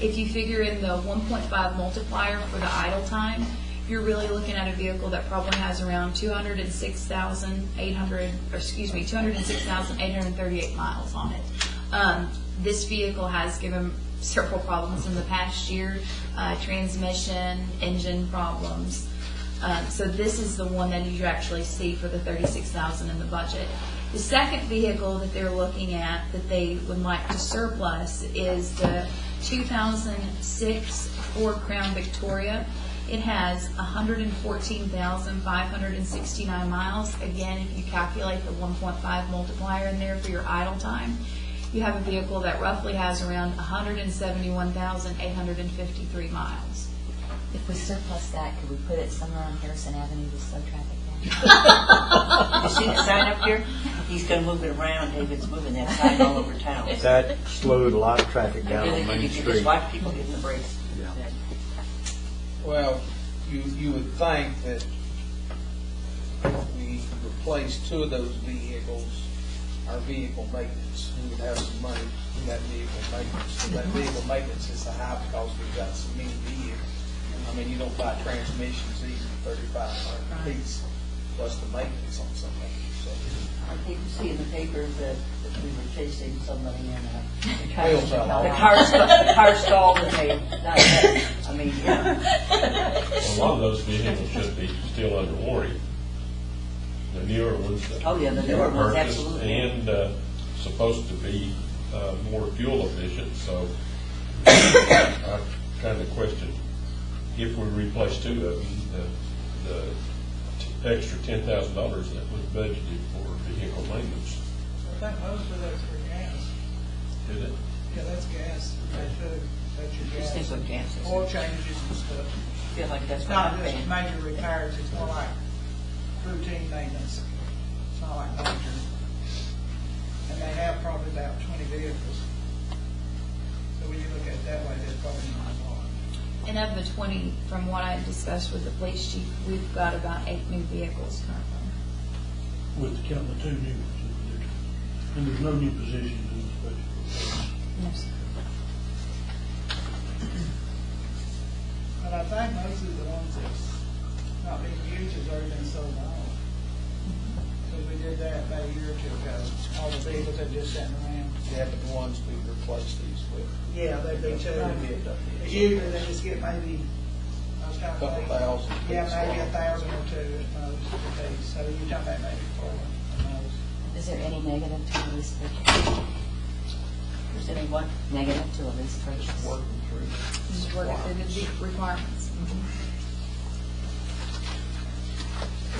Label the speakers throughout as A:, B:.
A: if you figure in the 1.5 multiplier for the idle time, you're really looking at a vehicle that probably has around 206,800, or excuse me, 206,838 miles on it. Um, This vehicle has given several problems in the past year, uh, transmission, engine problems. Um, So this is the one that you actually see for the 36,000 in the budget. The second vehicle that they're looking at that they would like to surplus is the 2006 Ford Crown Victoria. It has 114,569 miles. Again, if you calculate the 1.5 multiplier in there for your idle time, you have a vehicle that roughly has around 171,853 miles.
B: If we surplus that, could we put it somewhere on Harrison Avenue to slow traffic
C: You see the sign up here? He's gonna move it around, David's moving that sign all over town.
D: That slowed a lot of traffic
C: I
D: down
C: really
D: on
C: think you
D: Main
C: could just
D: Street.
C: watch people hitting the brakes.
D: Yeah.
E: Well, you, you would think that we replace two of those vehicles, our vehicle maintenance, we would have some money in that vehicle maintenance. And That vehicle maintenance is a high because we've got so many vehicles. I mean, you don't buy transmissions easy, thirty-five hundred
A: Right.
E: piece, plus the maintenance on something, so.
C: I think you see in the paper that that we were chasing somebody in a. the car-
E: Wheels fell off.
C: The car, st- the car stalled and they, not that, I mean, yeah.
F: A lot of those vehicles should be still under warranty. The newer ones. that
C: Oh, yeah, the newer
F: were
C: ones,
F: purchased
C: absolutely.
F: And uh, supposed to be uh, more fuel efficient, so I kind of question if we replace two of them, the- the t- extra ten thousand dollars that was budgeted for vehicle maintenance,
G: That most of those were gas.
F: did it?
G: Yeah, that's gas. That's your, that's your
C: Just think
G: gas.
C: what Jan says.
G: Oil changes and stuff.
C: Feel like that's
G: It's
C: what I'm
G: not just
C: saying.
G: major repairs, it's more like routine maintenance. It's not like major. And they have probably about twenty vehicles. So when you look at it that way, there's probably not a lot.
A: And of the 20, from what I discussed with the police chief, we've got about eight new vehicles currently.
H: with the count of two new ones. that they're- And there's no new positions in this budget.
A: Yes.
G: But I think most of the ones that's not being used has already been sold off. Because we did that about a year or two ago, all the vehicles that just sitting around.
E: Yeah, but the ones we replace these with.
G: Yeah, they, they
E: They
G: took,
E: did, uh,
G: usually they just get maybe, I was trying to
E: Couple
G: think.
E: thousand.
G: Yeah, maybe a thousand or two at most, a piece. so you're talking about maybe four at most.
B: down? Is there any negative to a lease purchase?
C: Is there any what?
B: Negative to a lease purchase?
E: Working through.
A: Just working through the deep requirements.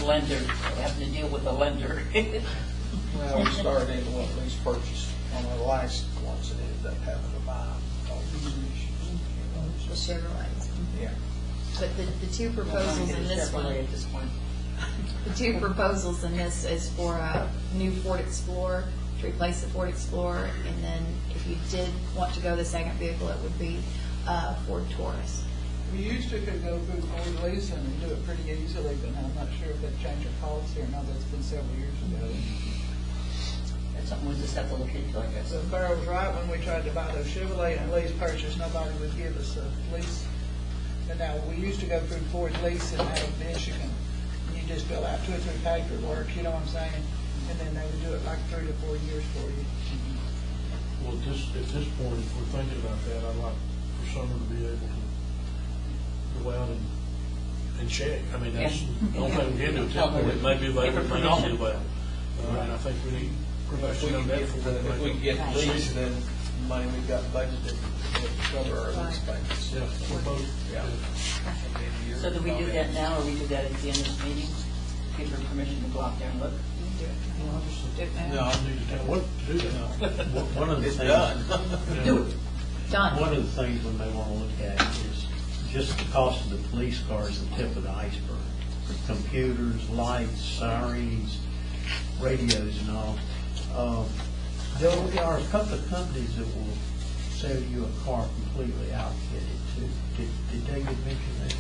C: Lender, having to deal with a lender.
E: Well, we started into one of these purchases on the last ones that ended up having to buy all these issues.
A: The Chevrolets.
C: Mm-hmm.
E: Yeah.
A: But the, the two proposals in this
C: Chevrolet
A: one,
C: At this point.
A: the two proposals in this is for a new Ford Explorer, to replace the Ford Explorer, and then if you did want to go the second vehicle, it would be uh, Ford Taurus.
G: We used to could go through Ford leasing and do it pretty easily, but now I'm not sure if they've changed their policy or not, that's been several years ago.
C: That's something we just have to look into, I guess.
G: So Burrow was right, when we tried to buy those Chevrolet and lease purchase, nobody would give us a lease. And now, we used to go through Ford leasing out of Michigan, and you just fill out two or three paperwork, you know what I'm saying? And then they would do it like three to four years for you.
H: Well, at this, at this point, if we're thinking about that, I'd like for someone to be able to go out and, and check. I mean, that's, the only thing we can do, tell them it may be available, it may not be available. Uh, And I think we need
E: If we
H: protection
E: can
H: on
E: get,
H: that before we
E: if we
H: make
E: can get these, then money we've got budgeted to cover our lease payments.
H: a- Yeah, for both.
E: Yeah.
C: So do we do that now, or we do that at the end of this meeting? Give her permission to go out there and look?
E: No,
H: I need to tell what to do now.
D: One one of the
E: it's
D: things.
E: done.
H: Yeah.
A: Done.
D: One of the things we may want to look at is just the cost of the police car is the tip of the iceberg. Computers, lights, sirens, radios and all. Um, There are a couple of companies that will sell you a car completely outfitted too. Did did David mention that?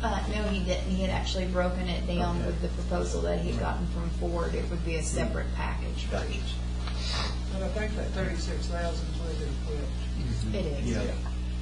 A: Uh, no, he didn't. He had actually broken it down
D: Okay.
A: with the proposal that he'd gotten from Ford. It would be a separate package for each.
G: But I think that thirty-six thousand is what they put.
A: It is.
D: Yeah.